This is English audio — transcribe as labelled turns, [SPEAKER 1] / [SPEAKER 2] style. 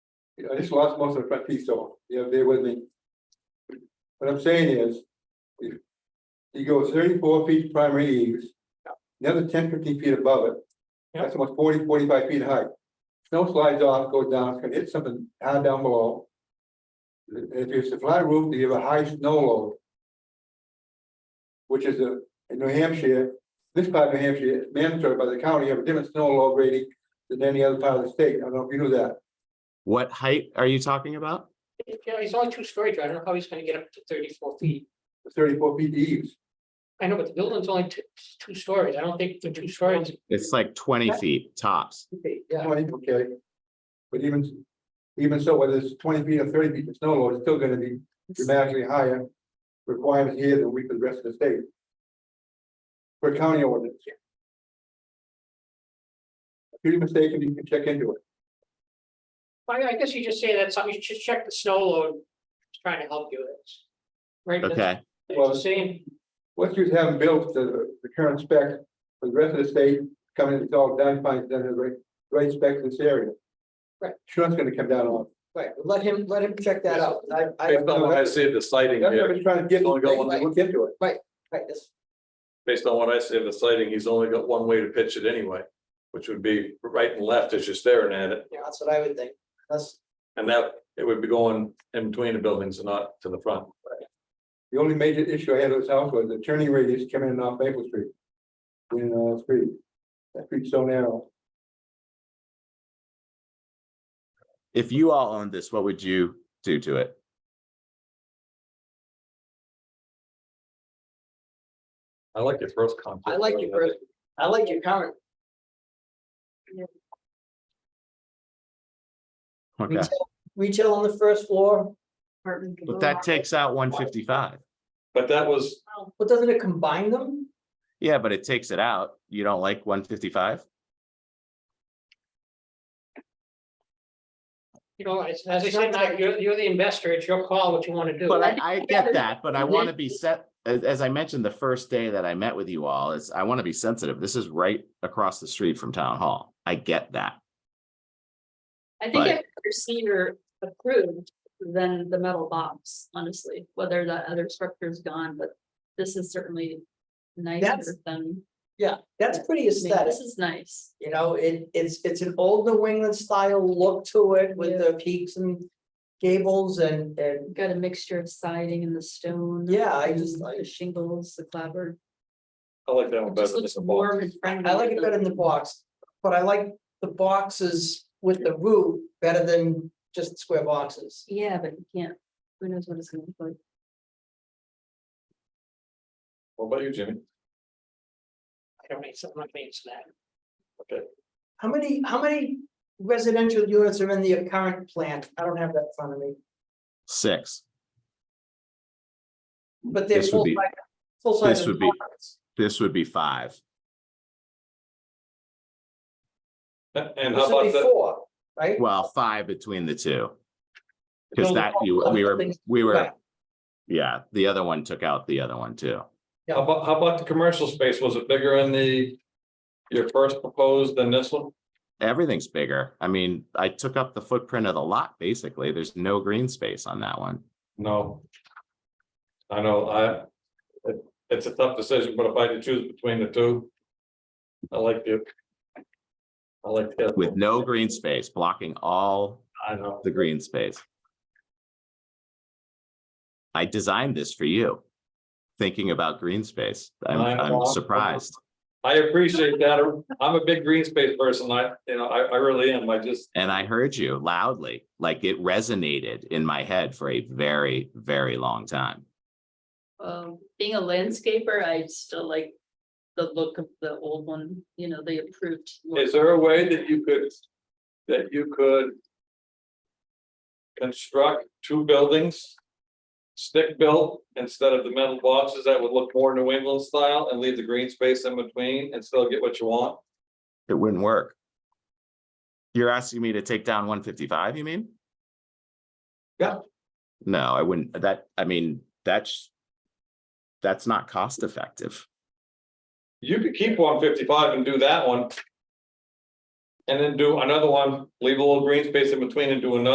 [SPEAKER 1] you know, I just lost most of the front teeth, so, you know, bear with me. What I'm saying is. if He goes thirty-four feet primary eaves. Another 10, 15 feet above it.
[SPEAKER 2] Yeah.
[SPEAKER 1] That's almost 40, 45 feet high. Snow slides off, goes down, it's gonna hit something high down below. If it's a flat roof, you have a high snow load. Which is a, in New Hampshire, this part of New Hampshire, is mandatory by the county, you have a different snow load rating than any other part of the state. I don't know if you knew that.
[SPEAKER 3] What height are you talking about?
[SPEAKER 2] Yeah, he's only two stories. I don't know how he's gonna get up to thirty-four feet.
[SPEAKER 1] thirty-four feet eaves.
[SPEAKER 2] I know, but the building's only two, two stories. I don't think the two stories.
[SPEAKER 3] It's like twenty
[SPEAKER 2] Yeah.
[SPEAKER 3] feet tops.
[SPEAKER 2] Yeah,
[SPEAKER 1] Twenty, okay. But even, even so, whether it's twenty feet or thirty feet of snow load, it's still gonna be dramatically higher requirement here than we for the rest of the state. For county ordinance. If you're mistaken, you can check into it.
[SPEAKER 2] I, I guess you just say that something, you should check the snow load. It's Trying to help you with this. Right? that's-
[SPEAKER 3] Okay,
[SPEAKER 2] It's the same.
[SPEAKER 1] What's you haven't built the, the current spec for the rest of the state, coming, it's all done, fine, done, the right, right spec in this area.
[SPEAKER 2] Right.
[SPEAKER 1] Sure, it's gonna come down on.
[SPEAKER 4] Right, let him, let him check that out. I, I,
[SPEAKER 5] Based on what I see of the sighting
[SPEAKER 1] That's what I
[SPEAKER 5] here,
[SPEAKER 1] was trying to get,
[SPEAKER 5] Only got one.
[SPEAKER 1] look into it.
[SPEAKER 4] right, this-
[SPEAKER 5] based on what I see of the sighting, he's only got one way to pitch it anyway. Which would be right and left as you're staring at it,
[SPEAKER 4] yeah, that's what I would think. That's,
[SPEAKER 5] and that it would be going in between the buildings and not to the front.
[SPEAKER 1] The only major issue I had with this house was the turning radius coming in off Maple Street. In uh street, that street's so narrow.
[SPEAKER 3] if you all owned this, what would you do to it?
[SPEAKER 5] I like your first comment.
[SPEAKER 4] I like your first, I like your current.
[SPEAKER 3] Okay,
[SPEAKER 4] retail- Retail on the first floor,
[SPEAKER 3] but that takes out one fifty-five.
[SPEAKER 5] But that was,
[SPEAKER 4] but doesn't it combine them?
[SPEAKER 3] Yeah, but it takes it out. You don't like one fifty-five?
[SPEAKER 2] You know, as, as I said, Mike, you're, you're the investor. It's your call what you want to do.
[SPEAKER 3] But I, I get
[SPEAKER 6] there's-
[SPEAKER 3] that, but I
[SPEAKER 6] there's-
[SPEAKER 3] want to be set, as, as I mentioned, the first day that I met with you all, is I want to be sensitive. This is right across the street from town hall. I get that.
[SPEAKER 6] I think
[SPEAKER 3] But-
[SPEAKER 6] I've never seen her approved than the metal box, honestly, whether that other structure is gone, but this is certainly nicer
[SPEAKER 4] That's-
[SPEAKER 6] than.
[SPEAKER 4] That's pretty
[SPEAKER 6] I mean,
[SPEAKER 4] aesthetic,
[SPEAKER 6] This is nice.
[SPEAKER 4] you know, it, it's, it's an old New England style look to it with the peaks and gables and, and,
[SPEAKER 6] Got a mixture of siding and the stone.
[SPEAKER 4] Yeah, I just
[SPEAKER 6] and
[SPEAKER 4] like-
[SPEAKER 6] The shingles, the clapboard.
[SPEAKER 5] I like that
[SPEAKER 6] It
[SPEAKER 5] one better
[SPEAKER 6] just
[SPEAKER 5] than
[SPEAKER 6] looks
[SPEAKER 5] the box.
[SPEAKER 6] warm and friendly.
[SPEAKER 4] I like it better in the box, but I like the boxes with the roof better than just square boxes.
[SPEAKER 6] Yeah, but you can't, who knows what it's gonna look like.
[SPEAKER 5] What about you, Jimmy?
[SPEAKER 2] I don't need something like me to that.
[SPEAKER 4] How many, how many residential units are in the current plant? I don't have that in front of me,
[SPEAKER 3] Six.
[SPEAKER 4] but they're
[SPEAKER 3] This would
[SPEAKER 4] full.
[SPEAKER 3] be,
[SPEAKER 4] Full
[SPEAKER 3] this
[SPEAKER 4] size
[SPEAKER 3] would be-
[SPEAKER 4] apartments.
[SPEAKER 3] this would be five.
[SPEAKER 5] And how
[SPEAKER 4] This would
[SPEAKER 5] about
[SPEAKER 4] be
[SPEAKER 5] that?
[SPEAKER 4] four, right?
[SPEAKER 3] Well, five between the two. Because
[SPEAKER 4] Building
[SPEAKER 3] that,
[SPEAKER 4] block,
[SPEAKER 3] you, we were,
[SPEAKER 4] building-
[SPEAKER 3] we were,
[SPEAKER 4] Right.
[SPEAKER 3] yeah, the other one took out the other one too.
[SPEAKER 5] How about, how about the commercial space? Was it bigger in the? Your first proposed than this one?
[SPEAKER 3] Everything's bigger. I mean, I took up the footprint of the lot, basically. There's no green space on that one.
[SPEAKER 5] No. I know, I. it- It's a tough decision, but if I had to choose between the two. I like the. I like the.
[SPEAKER 3] With no green space, blocking all
[SPEAKER 5] I know,
[SPEAKER 3] the green space. I designed this for you, thinking about green space. I'm,
[SPEAKER 5] I know.
[SPEAKER 3] I'm surprised.
[SPEAKER 5] I appreciate that, I'm a big green space person, I, you know, I, I really am, I just,
[SPEAKER 3] And I heard you loudly, like it resonated in my head for a very, very long time.
[SPEAKER 6] Um, being a landscaper, I still like the look of the old one, you know, the approved. look.
[SPEAKER 5] is there a way that you could? That you could. Construct two buildings. Stick built instead of the metal boxes that would look more New England style and leave the green space in between and still get what you want?
[SPEAKER 3] It wouldn't work. You're asking me to take down one fifty-five, you mean?
[SPEAKER 5] Yeah.
[SPEAKER 3] No, I wouldn't, that, I mean, that's, that's not cost effective.
[SPEAKER 5] You could keep one fifty-five and do that one. And then do another one, leave a little green space in between and do another